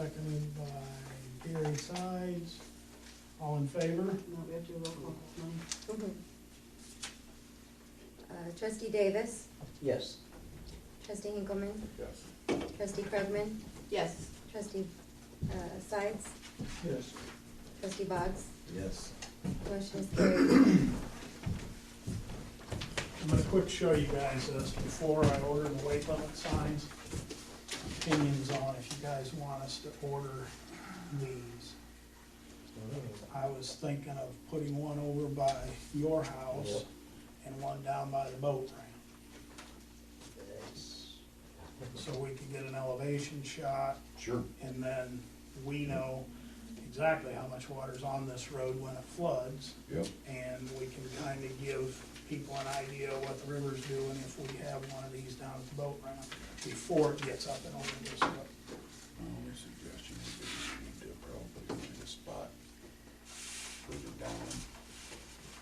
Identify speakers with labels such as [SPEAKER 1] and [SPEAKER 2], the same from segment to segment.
[SPEAKER 1] seconded by Gary Sides. All in favor?
[SPEAKER 2] No, we have to do roll call. No.
[SPEAKER 3] Mhm. Uh, Trustee Davis,
[SPEAKER 4] Yes.
[SPEAKER 3] trustee Hinkleman,
[SPEAKER 5] Yes.
[SPEAKER 3] trustee Krugman,
[SPEAKER 2] Yes.
[SPEAKER 3] trustee uh, Sides,
[SPEAKER 1] Yes.
[SPEAKER 3] trustee Boggs.
[SPEAKER 5] Yes.
[SPEAKER 3] Motion is carried.
[SPEAKER 1] I'm gonna quick show you guys this before I order the weight limit signs. Opinions on if you guys want us to order these. I was thinking of putting one over by your house and one down by the boat ramp. So we could get an elevation shot
[SPEAKER 5] Sure.
[SPEAKER 1] and then we know exactly how much water's on this road when it floods.
[SPEAKER 5] Yep.
[SPEAKER 1] And we can kind of give people an idea of what the river's doing if we have one of these down at the boat ramp before it gets up and over this way.
[SPEAKER 5] My only suggestion would be you need to probably find a spot further down,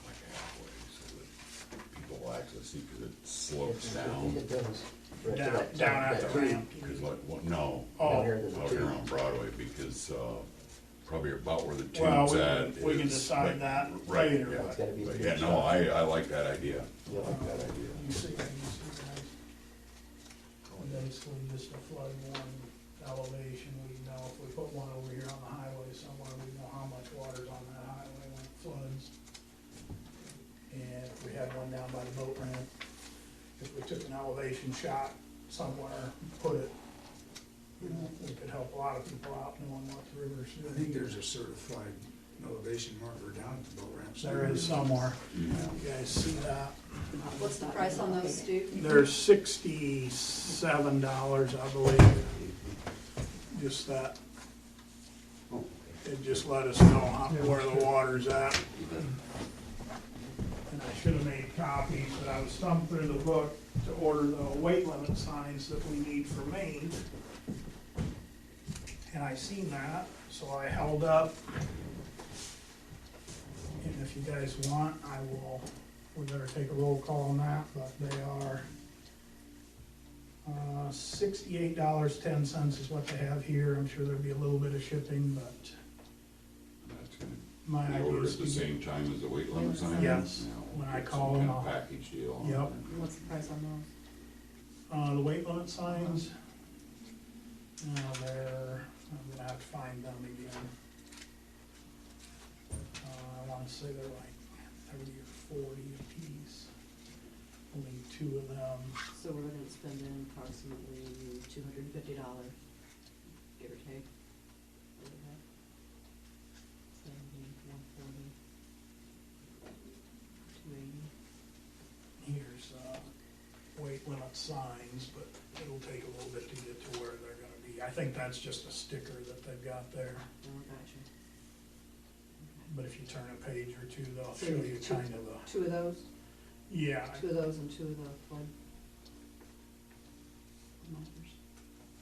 [SPEAKER 5] like halfway, so that people access it, because it slopes down.
[SPEAKER 4] It does. Right.
[SPEAKER 1] Down,
[SPEAKER 4] That-
[SPEAKER 1] down at
[SPEAKER 4] that
[SPEAKER 1] the
[SPEAKER 4] tree.
[SPEAKER 1] ramp.
[SPEAKER 5] Because like, what, no,
[SPEAKER 4] Down
[SPEAKER 1] Oh,
[SPEAKER 4] here, there's a
[SPEAKER 5] out here
[SPEAKER 4] tree.
[SPEAKER 5] on Broadway, because, uh, probably about where the
[SPEAKER 1] Well, we
[SPEAKER 5] tube's
[SPEAKER 1] can-
[SPEAKER 5] at is.
[SPEAKER 1] we can decide
[SPEAKER 5] but-
[SPEAKER 1] that
[SPEAKER 5] right,
[SPEAKER 1] later,
[SPEAKER 5] yeah.
[SPEAKER 1] but-
[SPEAKER 4] It's gotta be a
[SPEAKER 5] But
[SPEAKER 4] tree.
[SPEAKER 5] yeah, no, I, I like that idea.
[SPEAKER 4] Yeah, like that idea.
[SPEAKER 1] you see, you see guys. Basically just a flood warning elevation, we know if we put one over here on the highway somewhere, we know how much water's on that highway when it floods. And if we had one down by the boat ramp, if we took an elevation shot somewhere, put it, you know, it could help a lot of people out knowing what the river's
[SPEAKER 6] I think
[SPEAKER 1] doing.
[SPEAKER 6] there's a certified elevation marker down at the boat ramp.
[SPEAKER 1] There is somewhere,
[SPEAKER 5] Yeah.
[SPEAKER 1] you guys see that?
[SPEAKER 2] What's the price on those, Stu?
[SPEAKER 1] They're sixty-seven dollars, I believe, just that. It just let us know how- where the water's at. And I should have made copies, but I was thumbing through the book to order the weight limit signs that we need for Maine. And I seen that, so I held up. And if you guys want, I will we better take a roll call on that, but they are uh, sixty-eight dollars, ten cents is what they have here, I'm sure there'll be a little bit of shipping, but
[SPEAKER 5] That's good.
[SPEAKER 1] my
[SPEAKER 5] You
[SPEAKER 1] idea
[SPEAKER 5] order
[SPEAKER 1] is
[SPEAKER 5] at the
[SPEAKER 1] to get.
[SPEAKER 5] same time as the weight limit sign?
[SPEAKER 1] Yes.
[SPEAKER 5] Yeah, we'll
[SPEAKER 1] When I
[SPEAKER 5] get
[SPEAKER 1] call
[SPEAKER 5] some
[SPEAKER 1] them,
[SPEAKER 5] kind of
[SPEAKER 1] I'll-
[SPEAKER 5] Package deal. on
[SPEAKER 1] Yep.
[SPEAKER 5] it.
[SPEAKER 2] What's the price on those?
[SPEAKER 1] Uh, the weight limit signs, uh, they're, I'm gonna have to find them again. Uh, I wanna say they're like thirty or forty apiece, only two of them.
[SPEAKER 2] So we're gonna spend then approximately two hundred and fifty dollars, give or take. Seventy, one forty. Two eighty.
[SPEAKER 1] here's, uh, weight limit signs, but it'll take a little bit to get to where they're gonna be. I think that's just a sticker that they've got there,
[SPEAKER 2] Oh, gotcha. Okay.
[SPEAKER 1] but if you turn a page or two, they'll
[SPEAKER 2] So
[SPEAKER 1] show
[SPEAKER 2] you
[SPEAKER 1] you
[SPEAKER 2] took-
[SPEAKER 1] kind of a,
[SPEAKER 2] Two of those,
[SPEAKER 1] yeah,
[SPEAKER 2] two of those and two of the flood. Markers,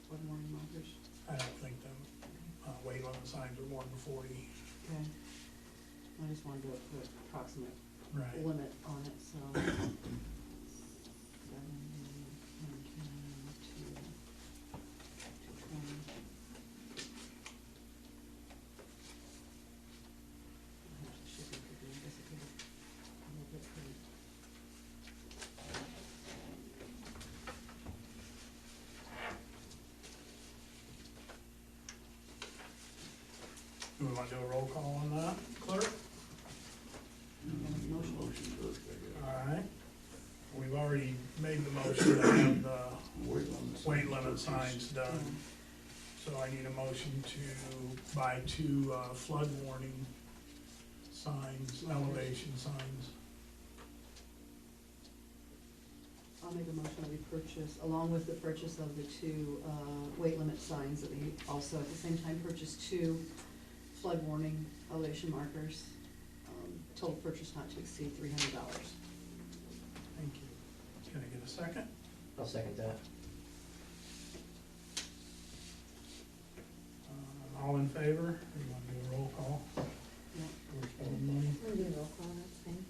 [SPEAKER 2] flood warning markers.
[SPEAKER 1] I don't think them, uh, weight limit signs are more than forty,
[SPEAKER 2] Okay. I just wanted to put approximate
[SPEAKER 1] right?
[SPEAKER 2] limit on it, so. Seven, one, two, two, twenty. How much the shipping could be, I guess it could be a little bit for each.
[SPEAKER 1] Do we wanna do a roll call on that, clerk?
[SPEAKER 2] Mm, motion.
[SPEAKER 5] Motion first, I guess.
[SPEAKER 1] Alright. We've already made the motion to have the
[SPEAKER 5] Weight limit.
[SPEAKER 1] weight limit signs done. So I need a motion to buy two uh, flood warning signs, elevation signs.
[SPEAKER 2] I'll make a motion that we purchase, along with the purchase of the two uh, weight limit signs, that we also at the same time purchase two flood warning elevation markers. Um, Total purchase not to exceed three hundred dollars.
[SPEAKER 1] Thank you. Can I get a second?
[SPEAKER 4] I'll second that.
[SPEAKER 1] Uh, All in favor? Or you want to do a roll call? Or spell the money?
[SPEAKER 3] We'll do a roll call, that's fine.
[SPEAKER 2] Mm.
[SPEAKER 3] Um,